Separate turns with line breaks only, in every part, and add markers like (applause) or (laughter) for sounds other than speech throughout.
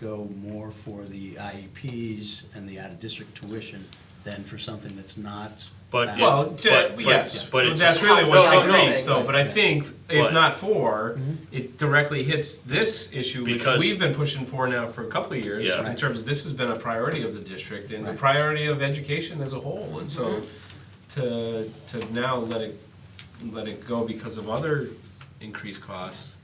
go more for the IEPs and the out-of-district tuition than for something that's not.
But
Yeah.
Well, to,
But-
yes,
but
but
it's
that's
just-
really what's
Well,
increased
no.
though, but I think, if
But-
not for,
Mm-hmm.
it directly hits this issue, which
Because-
we've been pushing for now for a couple of years,
Yeah.
in
Right.
terms, this has been a priority of the district and the
Right.
priority of education as a whole, and so
Mm-hmm.
to, to now let it, let it go because of other increased costs.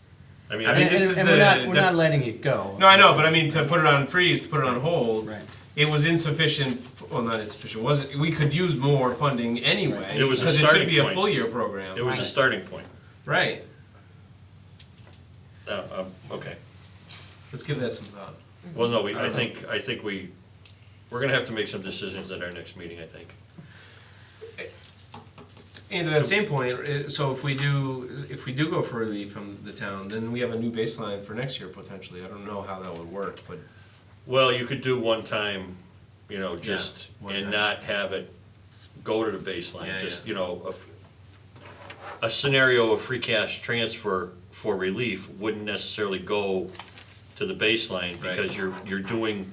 I mean,
I
I
And,
mean,
think
this
and-
is
and we're
the-
not, we're
the-
not letting it go.
No, I know, but I mean, to put it on freeze, to put it on hold,
Right.
it was insufficient, well, not insufficient, was, we could use more funding anyway.
It was a
Because it should
starting
be a
point.
full year program.
it was a
Right.
starting point.
Right,
Uh, um, okay.
let's give that some thought.
Well, no, we,
I
I
don't know.
think, I think we, we're gonna have to make some decisions at our next meeting, I think.
And to that same point, i- so if we do, if we do go for relief from the town, then we have a new baseline for next year potentially. I don't know how that would work, but
Well, you could do one time, you know, just,
one
and
time.
not have it go to the
Yeah,
baseline, just,
yeah.
you know, a f- a, scenario of free cash transfer for relief wouldn't necessarily go to the baseline,
Right.
because you're, you're doing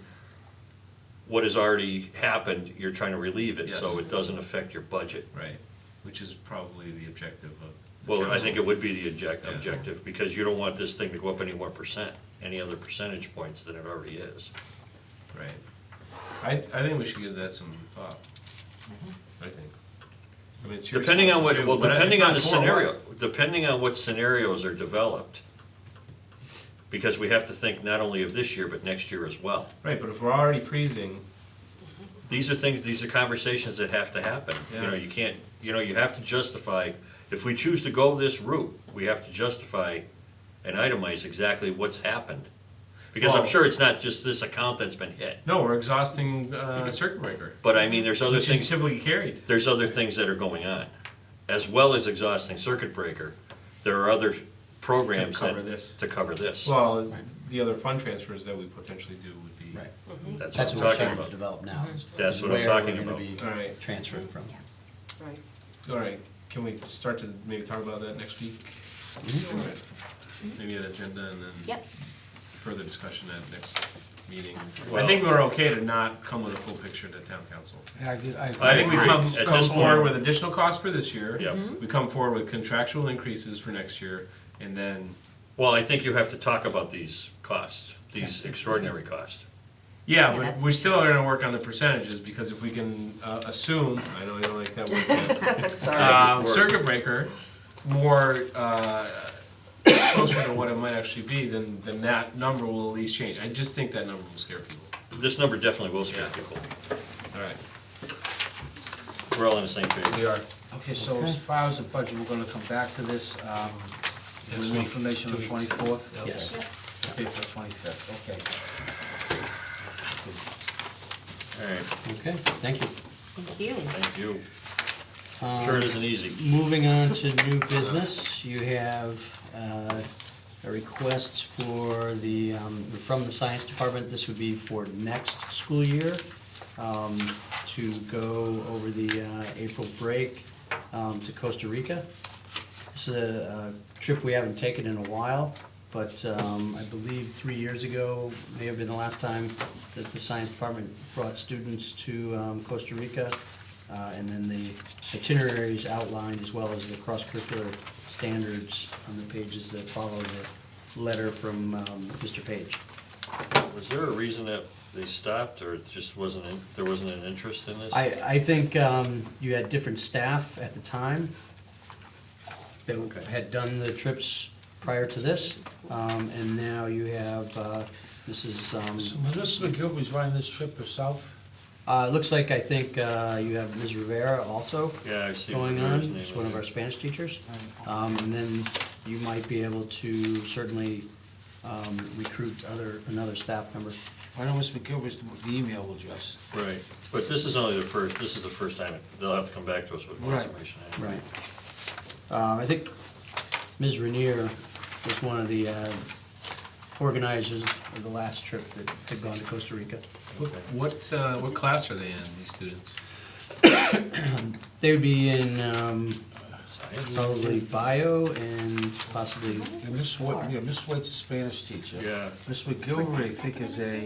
what has already happened, you're trying to relieve it, so
Yes.
it doesn't affect your budget.
right, which is probably the objective of. the
Well, I
council.
think it would be the object,
Yeah.
objective, because you don't want this thing to go up any more percent, any other percentage points than it already is.
Right. I, I think we should give that some thought. I think. I mean, it's your
Depending on what, well,
responsibility, but I-
depending on the
it's not for
scenario, depending on what scenarios are developed. Because we have to think not only of this year, but next year as well.
Right, but if we're already freezing,
These are things, these are conversations that have to happen, you know,
Yeah.
you can't, you know, you have to justify, if we choose to go this route, we have to justify and itemize exactly what's happened. Because I'm
Well-
sure it's not just this account that's been hit.
no, we're exhausting uh, circuit breaker,
But I mean, there's Mm-hmm. other
which is
things,
typically carried.
there's other things that are going on. As well as exhausting circuit breaker, there are other programs
To cover
that-
this.
To cover this.
Well, the other fund transfers that we potentially do would be.
Right.
That's
That's
what
what we're
I'm talking
starting to
about.
develop now. is-
That's
is
what I'm
where
talking
we're gonna
about.
be
All right.
Transferring from.
Right.
All right, can we start to maybe talk about that next week?
Mm-hmm.
All right. Maybe an agenda and then.
Yep.
Further discussion at next meeting.
Sounds good.
I think we're okay to not come with a full picture to town council.
Yeah, I did, I agree.
I think we
agree.
come,
At
come
this
forward
point-
with additional costs for this year.
Yep.
Mm-hmm.
We come forward with contractual increases for next year, and then,
Well, I think you have to talk about these costs, these extraordinary costs.
yeah,
Yeah,
but
that's-
we still are gonna work on the percentages, because if we can, uh, assume, I know you don't like that
(laughs)
word, but
(laughs) Sorry.
um,
work.
circuit breaker more uh, (coughs) closer to what it might actually be, then then that number will at least change. I just think that number will scare people.
This number definitely will scare people.
All right,
We're all on the same page.
we are.
Okay, so as far as the budget, we're gonna come back to this, um,
Next
with
week,
information on
two
the
weeks.
twenty-fourth?
Yes.
Okay, for twenty-fifth, okay.
All right,
Okay, thank you.
Thank you.
thank you. Sure it isn't easy.
Moving on to new business, you have uh, a request for the, um, from the science department, this would be for next school year, um, to go over the uh, April break um, to Costa Rica. This is a a trip we haven't taken in a while, but um, I believe three years ago, may have been the last time that the science department brought students to um, Costa Rica. Uh, And then the itinerary is outlined as well as the cross-curricular standards on the pages that follow the letter from um, Mr. Page.
Was there a reason that they stopped, or it just wasn't, in- there wasn't an interest in this?
I, I think um, you had different staff at the time that had done the trips prior to this, um, and now you have, uh, this is, um,
So Melissa McGilvery's running this trip herself?
uh, it looks like, I think uh, you have Ms. Rivera also
Yeah, I see.
going on,
Rivera's name
she's one
on
of
there.
our Spanish teachers. Um, And then you might be able to certainly um, recruit other, another staff member.
Why don't Miss McGilvery's, the email address?
Right, but this is only the first, this is the first time, they'll have to come back to us with more
Right.
information. anyway.
Right. Um, I think Ms. Rainier was one of the uh, organizers of the last trip that had gone to Costa Rica.
What what, uh, what class are they in? These students?
They would be in um, probably bio and possibly
What is
And
this
Miss White,
for?
yeah, Miss White's a Spanish teacher.
Yeah.
Miss McGilvery, I think, is a